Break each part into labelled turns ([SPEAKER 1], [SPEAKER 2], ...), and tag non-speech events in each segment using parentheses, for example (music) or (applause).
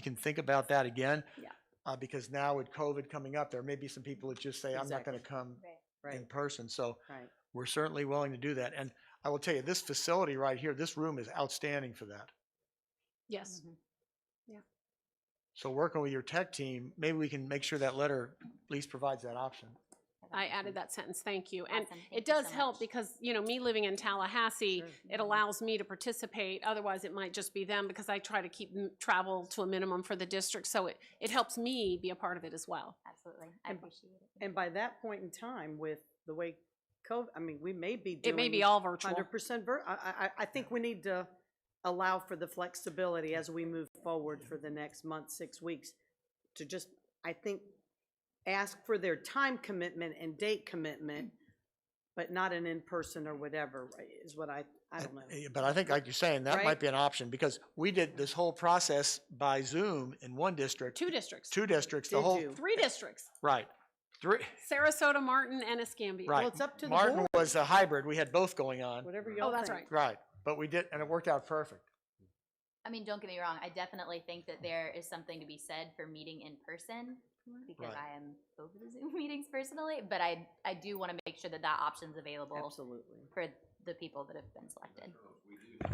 [SPEAKER 1] can think about that again.
[SPEAKER 2] Yeah.
[SPEAKER 1] Uh, because now with COVID coming up, there may be some people that just say, I'm not gonna come in
[SPEAKER 2] Right,
[SPEAKER 1] person, so
[SPEAKER 2] right.
[SPEAKER 1] we're certainly willing to do that. And I will tell you, this facility right here, this room is outstanding for that.
[SPEAKER 3] Yes.
[SPEAKER 2] Mm-hmm.
[SPEAKER 1] So working with your tech team, maybe we can make sure that letter at least provides that option.
[SPEAKER 3] I added that sentence, thank you. And
[SPEAKER 2] Mm-hmm. Awesome,
[SPEAKER 3] it
[SPEAKER 2] thank you
[SPEAKER 3] does
[SPEAKER 2] so
[SPEAKER 3] help
[SPEAKER 2] much. Mm-hmm.
[SPEAKER 3] because, you know, me living in Tallahassee, it allows me to participate. Otherwise, it might just be them because I try to keep m- travel to a minimum for the district. So it, it helps me be a part of it as well.
[SPEAKER 2] Absolutely, I
[SPEAKER 4] And-
[SPEAKER 2] appreciate it.
[SPEAKER 4] And by that point in time, with the way COVID, I mean, we may be doing.
[SPEAKER 3] It may be all virtual.
[SPEAKER 4] Hundred percent vir, I, I- I, I think we need to allow for the flexibility as we move forward for the next month, six weeks, to just, I think, ask for their time commitment and date commitment, but not an in-person or whatever, right, is what I, I don't know.
[SPEAKER 1] Uh, But I think, like you're saying, that might
[SPEAKER 4] Right?
[SPEAKER 1] be an option, because we did this whole process by Zoom in one district,
[SPEAKER 3] Two districts,
[SPEAKER 1] two districts, the
[SPEAKER 4] Did
[SPEAKER 1] whole,
[SPEAKER 4] you?
[SPEAKER 3] three districts,
[SPEAKER 1] right. Three,
[SPEAKER 3] Sarasota, Martin, and Escambia.
[SPEAKER 4] Well,
[SPEAKER 1] right.
[SPEAKER 4] it's up to the
[SPEAKER 1] Martin
[SPEAKER 4] board,
[SPEAKER 1] was a hybrid, we had both going on,
[SPEAKER 4] whatever y'all
[SPEAKER 3] Oh, that's
[SPEAKER 4] think.
[SPEAKER 3] right.
[SPEAKER 1] right, but we did, and it worked out perfect.
[SPEAKER 2] I mean, don't get me wrong, I definitely think that there is something to be said for meeting in person because
[SPEAKER 1] Right.
[SPEAKER 2] I am over the Zoom (laughs) meetings personally, but I, I do want to make sure that that option's available
[SPEAKER 4] Absolutely.
[SPEAKER 2] for the people that have been selected.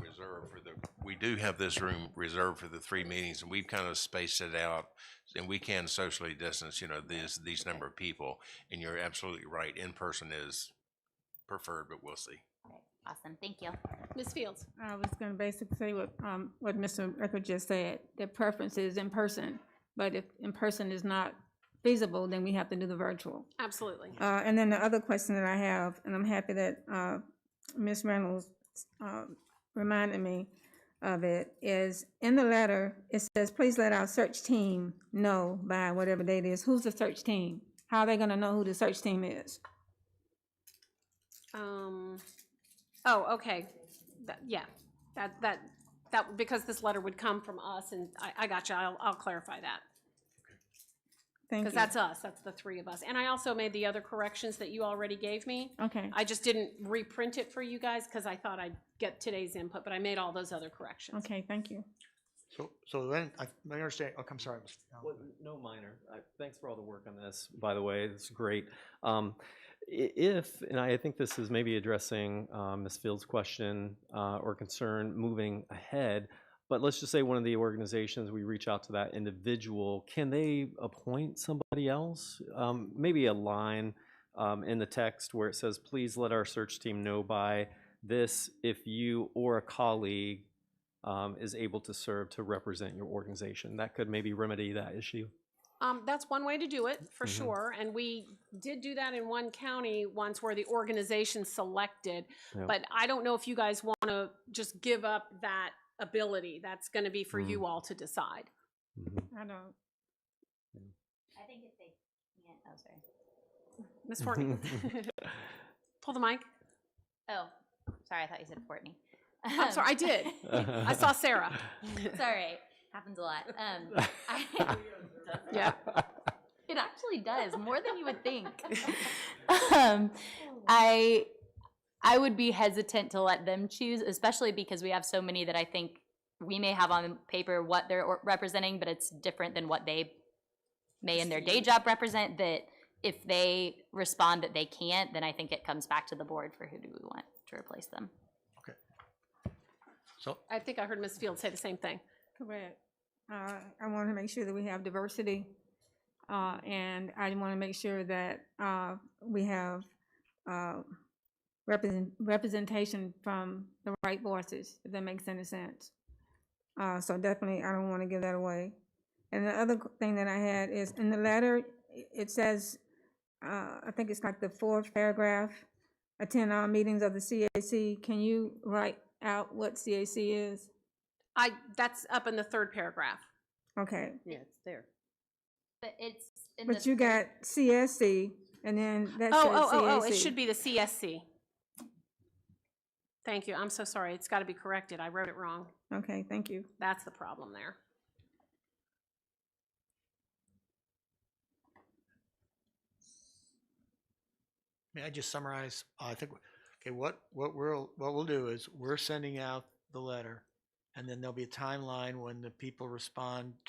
[SPEAKER 5] reserved for the, we do have this room reserved for the three meetings, and we've kind of spaced it out, and we can socially distance, you know, these, these number of people, and you're absolutely right, in person is preferred, but we'll see.
[SPEAKER 2] Okay, Awesome, thank you.
[SPEAKER 3] Ms. Fields,
[SPEAKER 6] I was gonna basically say what, um, what Mr. Ricker just said, the preference is in person, but if in person is not feasible, then we have to do the virtual.
[SPEAKER 3] absolutely.
[SPEAKER 6] Uh, and then the other question that I have, and I'm happy that, uh, Ms. Reynolds, uh, reminded me of it, is in the letter, it says, please let our search team know by whatever date it is, who's the search team? How are they gonna know who the search team is?
[SPEAKER 3] Um, oh, okay. That, yeah, that, that, that, because this letter would come from us and I, I got you. I'll, I'll clarify that.
[SPEAKER 6] Thank you.
[SPEAKER 3] Because that's us, that's the three of us. And I also made the other corrections that you already gave me.
[SPEAKER 6] Okay,
[SPEAKER 3] I just didn't reprint it for you guys because I thought I'd get today's input, but I made all those other corrections.
[SPEAKER 6] okay, thank you.
[SPEAKER 1] So, so then, I, I understand, oh, I'm sorry. Mr. Allen.
[SPEAKER 7] Well, no minor. I- Thanks for all the work on this, by the way. It's great. Um, i- If, and I think this is maybe addressing um, Ms. Field's question uh, or concern moving ahead, but let's just say one of the organizations, we reach out to that individual, can they appoint somebody else? Um, Maybe a line um, in the text where it says, please let our search team know by this if you or a colleague um, is able to serve to represent your organization. That could maybe remedy that issue.
[SPEAKER 3] Um, that's one way to do it, for
[SPEAKER 7] Mhm.
[SPEAKER 3] sure. And we did do that in one county once where the organization selected.
[SPEAKER 7] Yeah.
[SPEAKER 3] But I don't know if you guys want to just give up that ability. That's going to be for you all to decide.
[SPEAKER 6] I don't,
[SPEAKER 2] I think if they can't, oh, sorry.
[SPEAKER 3] Ms. Fortney, pull the mic.
[SPEAKER 2] Oh, sorry, I thought you said Courtney.
[SPEAKER 3] I'm sorry, I
[SPEAKER 2] (laughs)
[SPEAKER 3] did. I
[SPEAKER 7] (laughs)
[SPEAKER 3] saw Sarah.
[SPEAKER 2] It's
[SPEAKER 3] (laughs)
[SPEAKER 2] all right, happens a lot. Um, I-
[SPEAKER 3] Yeah.
[SPEAKER 2] It actually does more than you would
[SPEAKER 6] (laughs)
[SPEAKER 2] think.
[SPEAKER 6] Oh.
[SPEAKER 2] um, I I would be hesitant to let them choose, especially because we have so many that I think we may have on paper what they're or- representing, but it's different than what they may in their day job represent. That if they respond that they can't, then I think it comes back to the board for who do we want to replace them.
[SPEAKER 1] So,
[SPEAKER 3] I think I heard Ms. Field say the same thing.
[SPEAKER 6] Correct. Uh, I want to make sure that we have diversity, uh, and I want to make sure that, uh, we have, uh, represent, representation from the right voices, if that makes any sense. Uh, so definitely, I don't want to give that away. And the other thing that I had is, in the letter, i- it says, uh, I think it's like the fourth paragraph, attend all meetings of the CAC. Can you write out what CAC is?
[SPEAKER 3] I, that's up in the third paragraph.
[SPEAKER 6] Okay.
[SPEAKER 4] Yeah, it's there.
[SPEAKER 2] But it's in
[SPEAKER 6] But you got CSC, and then that says
[SPEAKER 3] Oh, oh, oh, oh, it
[SPEAKER 6] CAC.
[SPEAKER 3] should be the CSC. Thank you, I'm so sorry, it's gotta be corrected, I wrote it wrong.
[SPEAKER 6] Okay, thank you.
[SPEAKER 3] That's the problem there.
[SPEAKER 1] may I just summarize, I think, okay, what, what we'll, what we'll do is, we're sending out the letter And then there'll be a timeline when the people respond